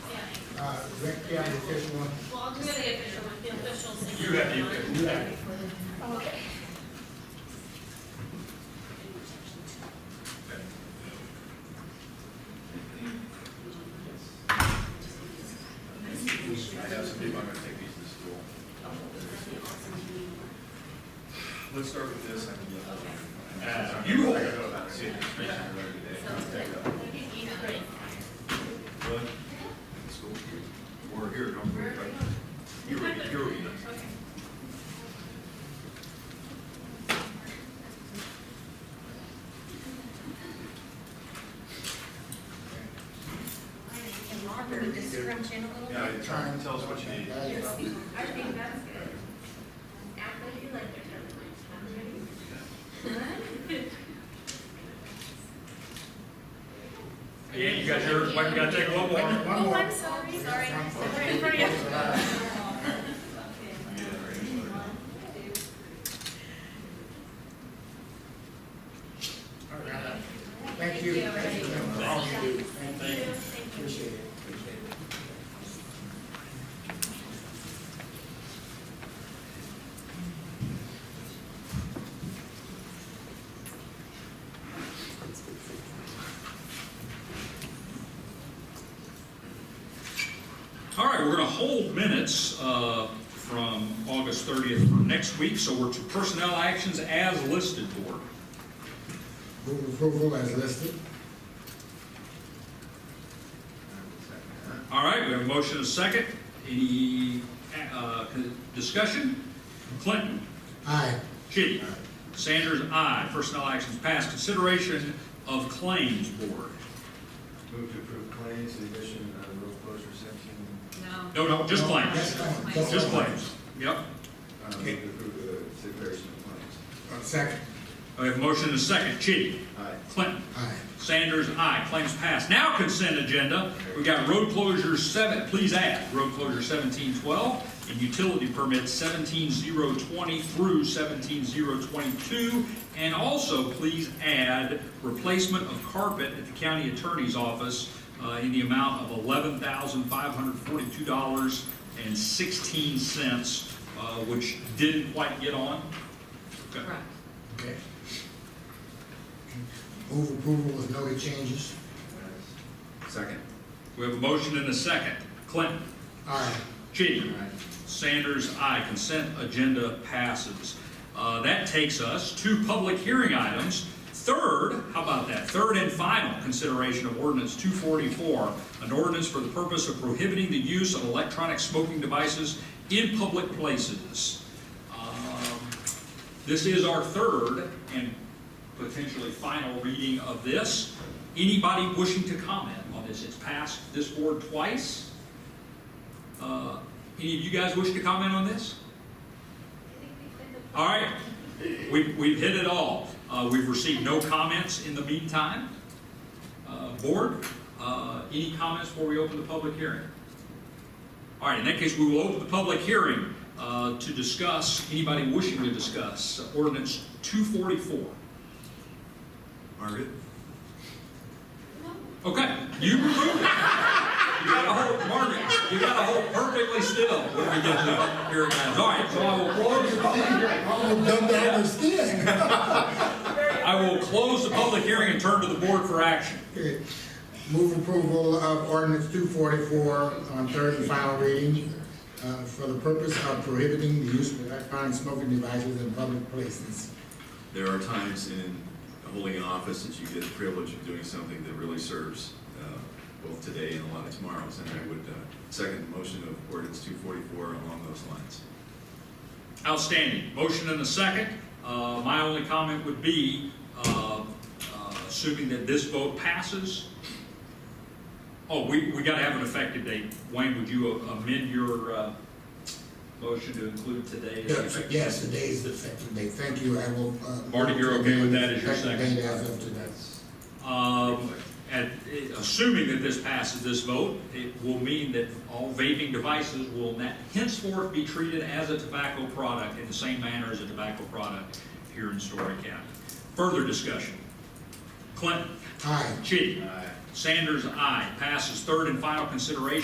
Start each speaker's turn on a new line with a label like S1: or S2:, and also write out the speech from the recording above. S1: uh, Grant County official one.
S2: Well, I'll do the official one, the official signature.
S3: You have the
S2: line.
S3: you have
S2: Okay.
S3: I have some people, I'm gonna take these to school. Let's start with this. I can get- You hold it. See it, it's basically every day. But, it's cool. We're here, don't worry about it. You're, ready, you're. ready.
S4: Can you scrunch in a little bit?
S3: Yeah, try and tell us what you need.
S4: I think that's good. Act like you like it.
S5: Yeah, you got your, you gotta take a little more.
S1: One more.
S4: Oh, sorry,
S3: Yeah, right.
S1: All right. Thank you, thank you for all you do, thank you, appreciate it.
S5: All right, we're going to hold minutes uh, from August 30th for next week, so we're to personnel actions as listed board.
S1: Move approval as listed.
S5: All right, we have a motion and a second. Any uh, discussion? Clinton?
S1: Aye.
S5: Chitty? Sanders, aye. Personnel actions passed. Consideration of claims board.
S6: Move to approve claims, the addition of road closure section.
S2: No.
S5: No, no, just claims. Just claims. Yep.
S6: Uh, Move
S1: Okay.
S6: to approve the declaration of claims.
S1: Uh, Second.
S5: We have a motion and a second. Chitty?
S6: Aye.
S5: Clinton?
S1: Aye.
S5: Sanders, aye. Claims passed. Now consent agenda. We've got road closure seven, please add, road closure seventeen twelve and utility permits seventeen zero twenty through seventeen zero twenty-two. And also, please add replacement of carpet at the county attorney's office uh, in the amount of eleven thousand five hundred forty-two dollars and sixteen cents, uh, which didn't quite get on. Okay.
S2: Correct.
S1: Okay. Move approval with noted changes.
S6: Second.
S5: We have a motion and a second. Clinton?
S1: Aye.
S5: Chitty? Sanders, aye. Consent agenda passes. Uh, That takes us to public hearing items. Third, how about that? Third and final consideration of ordinance 244, an ordinance for the purpose of prohibiting the use of electronic smoking devices in public places. Um, This is our third and potentially final reading of this. Anybody wishing to comment on this? It's passed this board twice. Uh, Any of you guys wish to comment on this? All right, we've, we've hit it all. Uh, We've received no comments in the meantime. Uh, Board, uh, any comments before we open the public hearing? All right, in that case, we will open the public hearing uh, to discuss, anybody wishing to discuss, ordinance 244.
S6: Margaret?
S5: Okay, you removed it. You gotta hold, Margaret, you gotta hold perfectly still when we get to hearing items. All right, so I will close the public I will close the public hearing and turn to the board for action.
S1: Okay. Move approval of ordinance two forty-four on third and final reading uh, for the purpose of prohibiting the use of electronic smoking devices in public places.
S7: There are times in holding office that you get the privilege of doing something that really serves uh, both today and a lot of tomorrows, and I would uh, second the motion of ordinance 244 along those lines.
S5: Outstanding. Motion and a second. Uh, My only comment would be, uh, uh, assuming that this vote passes, oh, we, we gotta have an effective date. Wayne, would you amend your uh, motion to include today? as the
S1: Yes,
S5: effective
S1: Yes, today is the effective date. Thank you, I will. uh,
S5: Marty, you're okay with that as your
S1: effective
S5: second?
S1: date as of today.
S5: Um, and it- assuming that this passes this vote, it will mean that all vaping devices will na- henceforth be treated as a tobacco product in the same manner as a tobacco product here in Story County. Further discussion. Clinton?
S1: Aye.
S5: Chitty?
S6: Aye.
S5: Sanders, aye. Passes third and final consideration